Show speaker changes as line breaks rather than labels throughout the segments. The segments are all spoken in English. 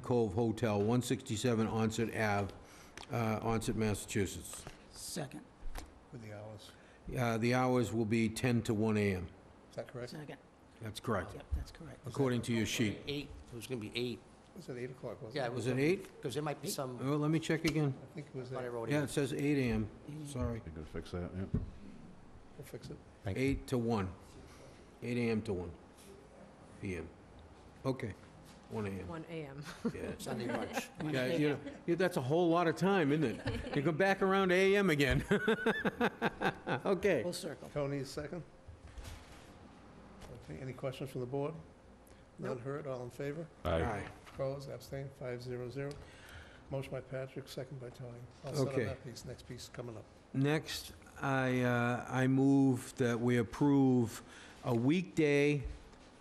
Cove Hotel, 167 Onset Ave, uh, Onset, Massachusetts.
Second,
with the hours. Is
Uh, The hours will be 10 to 1 a.m.
that correct?
second.
That's correct,
Yep, that's correct.
according to your sheet.
Eight, it was gonna be eight,
Was it 8 o'clock, wasn't it?
yeah.
Was it 8?
Because there might be some,
Oh, let me check again.
I think it was
I thought I
8.
wrote
Yeah,
eight.
it says 8 a.m., sorry.
You could fix that, yeah.
We'll fix it.
8 to 1. 8 a.m. to 1 p.m. Okay, 1 a.m.,
One AM.
yeah.
Sunday lunch.
Yeah, you know, yeah, that's a whole lot of time, isn't it? You go back around to AM again. Okay.
Full circle.
Tony's second. Okay, any questions from the board? None heard, all in favor?
Aye.
Opposed, abstained, five zero zero. Motion by Patrick, second by Tony. I'll set
Okay.
on that piece, next piece coming up.
Next, I, uh, I move that we approve a weekday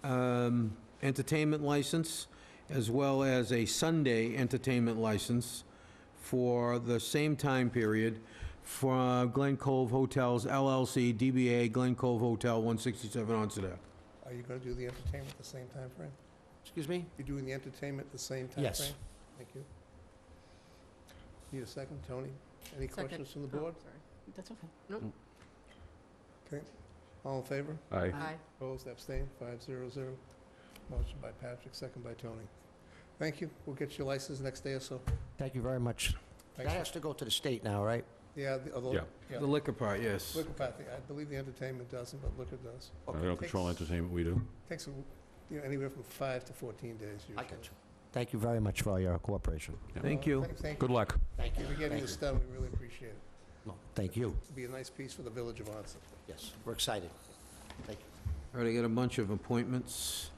um, entertainment license as well as a Sunday entertainment license for the same time period for Glen Cove Hotels LLC, DBA Glen Cove Hotel, 167 Onset Ave.
Are you gonna do the entertainment at the same time frame?
Excuse me?
You're doing the entertainment at the same time frame?
Yes.
Thank you. Need a second, Tony? Any
Second.
questions from the
Oh,
board?
sorry.
That's okay.
All in favor?
Aye.
Aye.
Opposed, abstained, five zero zero. Motion by Patrick, second by Tony. Thank you. We'll get your license next day or so.
Thank you very much. That
Thanks.
has to go to the state now, right?
Yeah, the, although,
Yeah.
yeah.
The liquor part, yes.
Liquor Patrick, I believe the entertainment doesn't, but liquor does.
We don't control entertainment, we do.
Takes, a- you know, anywhere from five to 14 days usually.
I got you. Thank you very much for all your cooperation.
Thank
Uh,
you.
thank- Thank you.
Good luck.
Thank you.
We're getting
Thank
this
you.
done. We really appreciate it.
No, Thank you,
It'll be a nice piece for the Village of Onset.
yes, we're excited. Thank you.
All right, I got a bunch of appointments.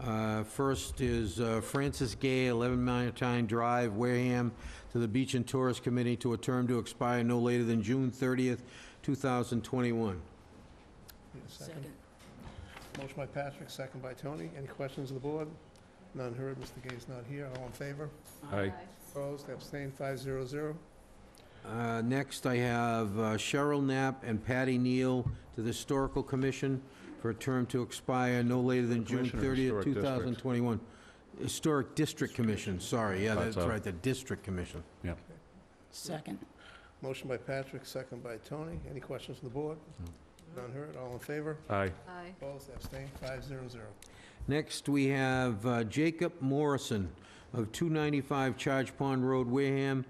Uh, First is uh, Francis Gay, 11 Mountain Drive, Wareham, to the Beach and Tourist Committee to a term to expire no later than June 30th, 2021.
Need a
Second.
Motion by Patrick, second by Tony. Any questions of the board? None heard. Mr. Gay's not here. All in favor?
Aye.
Opposed, abstained, five zero zero.
Uh, Next, I have uh, Cheryl Knapp and Patty Neal to the Historical Commission for a term to expire no later than June
Commission or
30th,
Historic District?
2021. Historic District Commission, sorry, yeah,
That's
that's
up.
right, the District Commission.
Second,
Motion by Patrick, second by Tony. Any questions from the board?
Mm.
None heard. All in favor?
Aye.
Aye.
Opposed, abstained, five zero zero.
Next, we have uh, Jacob Morrison of 295 Charge Pond Road, Wareham,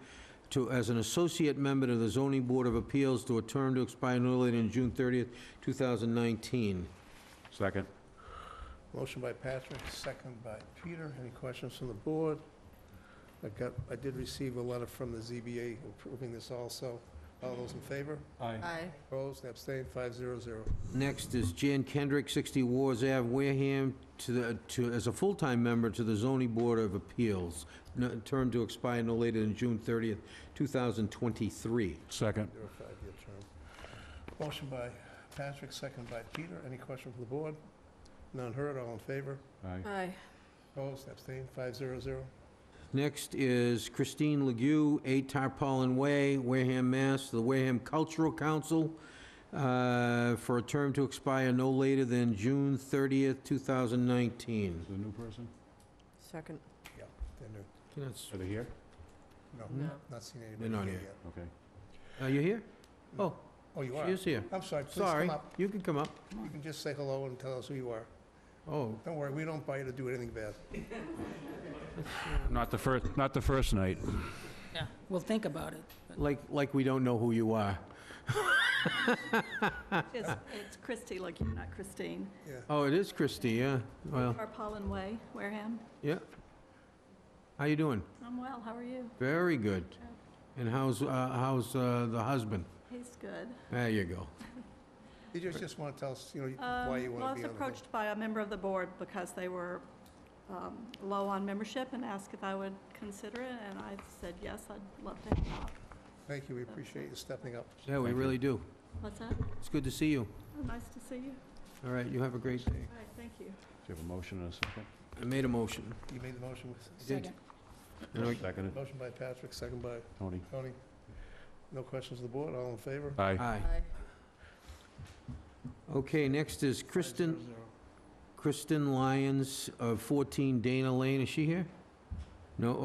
to, as an associate member to the Zoning Board of Appeals to a term to expire no later than June 30th, 2019.
Second.
Motion by Patrick, second by Peter. Any questions from the board? I got, I did receive a letter from the ZBA approving this also. All those in favor?
Aye.
Opposed, abstained, five zero zero.
Next is Jan Kendrick, 60 Wars Ave, Wareham, to the, to, as a full-time member to the Zoning Board of Appeals, no- term to expire no later than June 30th, 2023.
Second.
You're a five-year term. Motion by Patrick, second by Peter. Any question from the board? None heard, all in favor?
Aye.
Aye.
Opposed, abstained, five zero zero.
Next is Christine Legue, 8 Tarpaulin Way, Wareham, Mass., the Wareham Cultural Council, uh, for a term to expire no later than June 30th, 2019.
Is the new person?
Second.
They're new.
That's-
Are they here?
No,
No.
not seen
They're not
anybody here
here.
yet.
Okay.
Are you here? Oh,
Oh, you
she
are?
is here.
I'm sorry, please
Sorry,
come up.
you can come up.
You can just say hello and tell us who you are.
Oh,
Don't worry, we don't buy you to do anything bad.
Not the first, not the first night.
we'll think about it.
like, like we don't know who you are.
It's, it's Christie, like you're not Christine.
Yeah.
Oh, it is Christie, yeah, well,
Tarpaulin Way, Wareham.
yeah. How you doing?
I'm well, how are you?
Very good. And how's, uh, how's uh, the husband?
He's good.
There you go.
You just, just want to tell us, you know,
Um,
why you want to be
Well, I
on
was
the board.
approached by a member of the board because they were um, low on membership and asked if I would consider it, and I said, yes, I'd love to help out.
Thank you, we appreciate you stepping up.
Yeah, we
Thank you.
really do.
What's that?
It's good to see you.
Oh, Nice to see you.
All right, you have a great day.
All right, thank you.
Do you have a motion and a second?
I made a motion.
You made the motion.
Second,
And I-
Seconded.
Motion by Patrick, second by
Tony?
Tony. No questions of the board, all in favor?
Aye.
Aye.
Aye.
Okay, next is
Five
Kristen,
zero zero.
Kristen Lyons of 14 Dana Lane. Is she here? No,